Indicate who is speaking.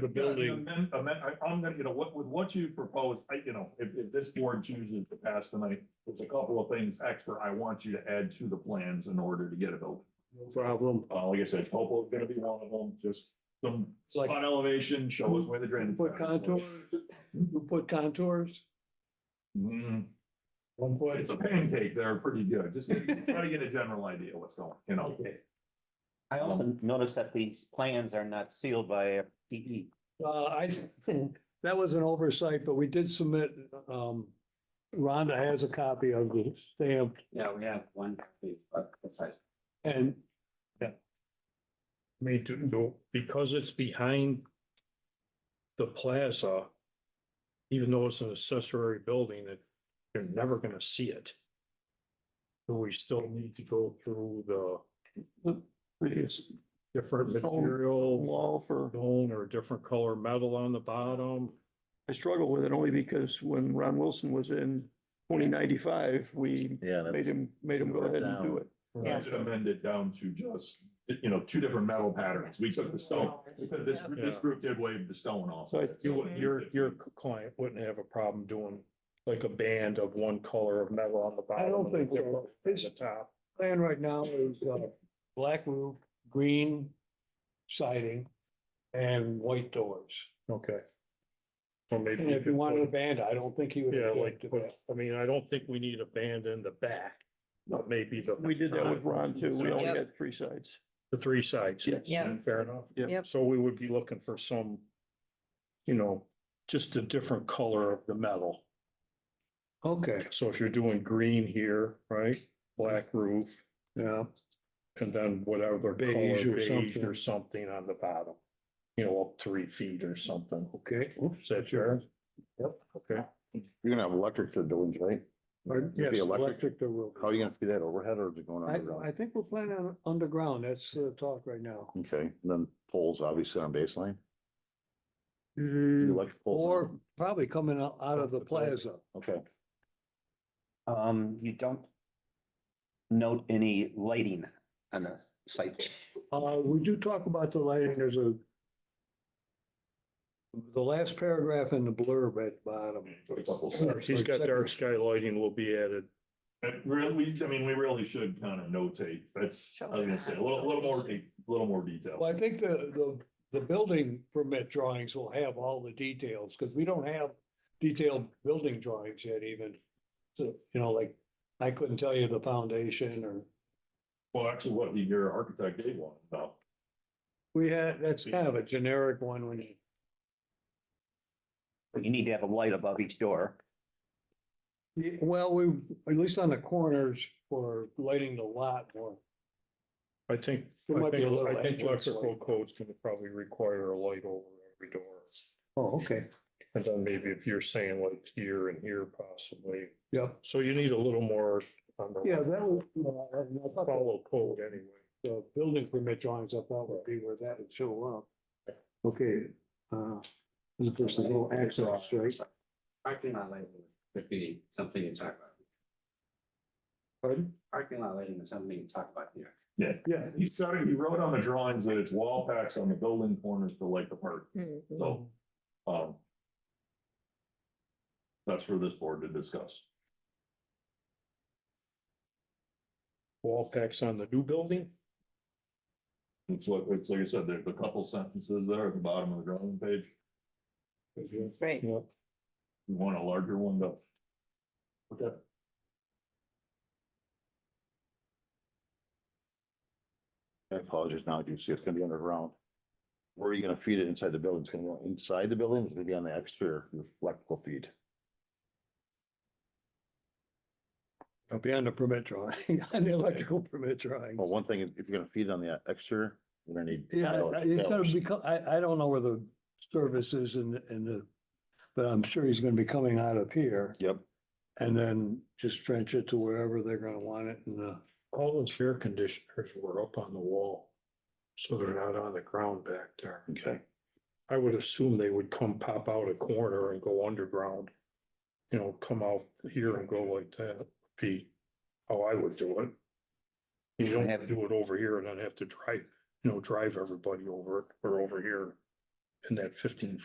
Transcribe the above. Speaker 1: the building,
Speaker 2: Amend, amend, I- I'm gonna, you know, what, with what you propose, I, you know, if, if this board chooses to pass tonight, it's a couple of things extra I want you to add to the plans in order to get it built.
Speaker 1: no problem.
Speaker 2: Uh, like I said, topo is gonna be one of them, just some
Speaker 1: Like-
Speaker 2: spot elevation, show us where the drainage.
Speaker 1: Put contours, we put contours,
Speaker 2: Hmm,
Speaker 1: one foot.
Speaker 2: it's a pancake, they're pretty good, just try to get a general idea what's going, you know.
Speaker 3: I also noticed that these plans are not sealed by E. DE.
Speaker 1: Uh, I, that was an oversight, but we did submit, um, Rhonda has a copy of the stamped
Speaker 3: Yeah, we have one.
Speaker 1: and
Speaker 4: I mean, to, to, because it's behind the plaza, even though it's an accessory building, that you're never gonna see it. Do we still need to go through the it's different
Speaker 5: Stone
Speaker 4: material,
Speaker 5: wall for,
Speaker 4: stone or different color metal on the bottom?
Speaker 5: I struggle with it only because when Ron Wilson was in twenty ninety-five, we
Speaker 6: Yeah,
Speaker 5: made
Speaker 6: that's,
Speaker 5: him, made him go ahead and do it.
Speaker 2: I should amend it down to just, you know, two different metal patterns, we took the stone, we took this, this group did wave the stone off.
Speaker 5: So I-
Speaker 2: It's-
Speaker 4: You, wouldn't- your, your client wouldn't have a problem doing like a band of one color of metal on the bottom.
Speaker 1: I don't
Speaker 4: and a
Speaker 1: think so.
Speaker 4: different on The
Speaker 1: It's-
Speaker 4: top.
Speaker 1: plan right now is, uh, black roof, green siding and white doors.
Speaker 4: Okay. Or maybe.
Speaker 1: And
Speaker 4: you
Speaker 1: if you
Speaker 4: could
Speaker 1: wanted a
Speaker 4: put-
Speaker 1: band, I don't think he would.
Speaker 4: Yeah, like,
Speaker 1: object to that.
Speaker 4: put- I mean, I don't think we need a band in the back, but maybe the.
Speaker 5: We did that with Ron too. We only
Speaker 7: Yep.
Speaker 5: had three sides.
Speaker 4: The three sides. Mm-hmm.
Speaker 5: Yeah.
Speaker 7: Yeah.
Speaker 4: Fair enough.
Speaker 5: Yeah.
Speaker 7: Yep.
Speaker 4: So we would be looking for some, you know, just a different color of the metal.
Speaker 1: Okay,
Speaker 4: So if you're doing green here, right, black roof,
Speaker 1: yeah.
Speaker 4: and then whatever color,
Speaker 1: Beige or
Speaker 4: beige
Speaker 1: something.
Speaker 4: or something on the bottom. You know, up three feet or something.
Speaker 1: Okay.
Speaker 4: Is that fair? Yep. Okay.
Speaker 6: you're gonna have electric to the buildings, right?
Speaker 1: Pardon?
Speaker 6: It'd
Speaker 1: Yes,
Speaker 6: be electric.
Speaker 1: electric there will. be.
Speaker 6: How are you gonna feed that overhead or is it going
Speaker 1: I, I
Speaker 6: underground?
Speaker 1: think we're planning on underground. That's the talk right now.
Speaker 6: Okay, and then poles obviously on baseline,
Speaker 7: Mm,
Speaker 6: electric poles.
Speaker 1: Or probably coming out, out of the plaza.
Speaker 6: Okay,
Speaker 3: Um, you don't note any lighting on the site.
Speaker 1: Uh, we do talk about the lighting. There's a the last paragraph in the blurb at bottom.
Speaker 2: A couple of-
Speaker 4: He's got dark sky lighting will be added.
Speaker 2: And Uh, really, I mean, we really should kind of notate, that's, I was gonna say, a little, a little more, a little more
Speaker 1: Well,
Speaker 2: detail.
Speaker 1: I think the, the, the building permit drawings will have all the details, because we don't have detailed building drawings yet even. So, you know, like, I couldn't tell you the foundation or,
Speaker 2: Well, actually, what your architect did want, though.
Speaker 1: we had, that's kind of a generic one when you.
Speaker 3: But you need to have a light above each door.
Speaker 1: Yeah, Well, we, at least on the corners for lighting the lot more.
Speaker 4: I think,
Speaker 1: There
Speaker 4: I
Speaker 1: might be a
Speaker 4: think,
Speaker 1: little
Speaker 4: I think
Speaker 1: entrance
Speaker 4: electrical
Speaker 1: light.
Speaker 4: codes can probably require a light over every door.
Speaker 1: Oh, okay.
Speaker 4: And then maybe if you're saying like here and here possibly,
Speaker 1: Yeah,
Speaker 4: so you need a little more. on the-
Speaker 1: yeah, that was, uh, I thought that
Speaker 4: Follow code anyway.
Speaker 1: the building permit drawings I thought would be where that would show up. Okay, uh, this is just a little access, right?
Speaker 8: Parking lot lighting could be something you talk about.
Speaker 1: Pardon?
Speaker 8: Parking lot lighting is something you talk about here.
Speaker 2: Yeah, yeah, he started, he wrote on the drawings that it's wall packs on the building corners to light the park,
Speaker 7: mm, mm.
Speaker 2: so, um. That's for this board to discuss.
Speaker 4: Wall packs on the new building?
Speaker 2: It's like, it's like I said, there's a couple sentences there at the bottom of the drawing page,
Speaker 7: Right.
Speaker 2: you want a larger one, though. Okay.
Speaker 6: I apologize now, you see it's gonna be underground. Where are you gonna feed it inside the building? It's gonna go inside the building, it's gonna be on the exterior, your electrical feed.
Speaker 1: It'll be on the permit drawing, on the electrical permit drawing.
Speaker 6: Well, one thing, is if you're gonna feed it on the exterior, you're gonna need.
Speaker 1: Yeah,
Speaker 6: metal-
Speaker 1: Oh, I- I- it's
Speaker 6: metals.
Speaker 1: gonna become, I, I don't know where the service is in, the- in the, but I'm sure he's gonna be coming out of here
Speaker 6: Yep,
Speaker 1: and then just trench it to wherever they're gonna want it and, uh,
Speaker 4: All those air conditioners were up on the wall. So they're not on the ground back there.
Speaker 6: okay,
Speaker 4: I would assume they would come pop out a corner and go underground. You know, come out here and go like that, be how I would do it. You don't have to do it over here and then have to drive, you know, drive everybody over it or over here. in that fifteen